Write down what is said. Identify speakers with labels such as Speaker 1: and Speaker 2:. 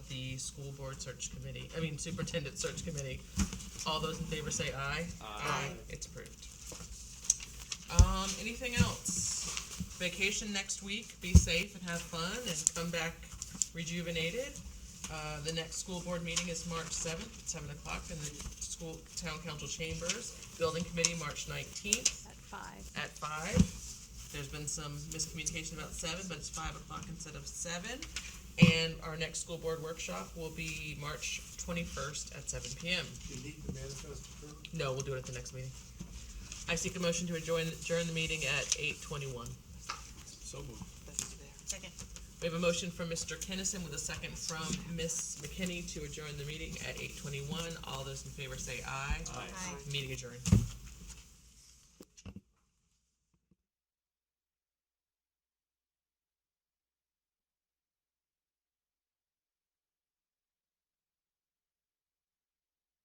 Speaker 1: School Board Search Committee, I mean Superintendent Search Committee. All those in favor say aye. Aye. It's approved. Um, anything else? Vacation next week, be safe and have fun and come back rejuvenated. Uh, the next school board meeting is March seventh, at seven o'clock in the school, town council chambers. Building committee, March nineteenth
Speaker 2: at five.
Speaker 1: at five. There's been some miscommunication about seven, but it's five o'clock instead of seven. And our next school board workshop will be March twenty-first at seven PM.
Speaker 3: You need the manifest approved?
Speaker 1: No, we'll do it at the next meeting. I seek a motion to adjourn, adjourn the meeting at eight twenty-one.
Speaker 3: So moved.
Speaker 4: Second.
Speaker 1: We have a motion from Mr. Kennison with a second from Ms. McKinney to adjourn the meeting at eight twenty-one. All those in favor say aye.
Speaker 4: Aye.
Speaker 1: Meeting adjourned.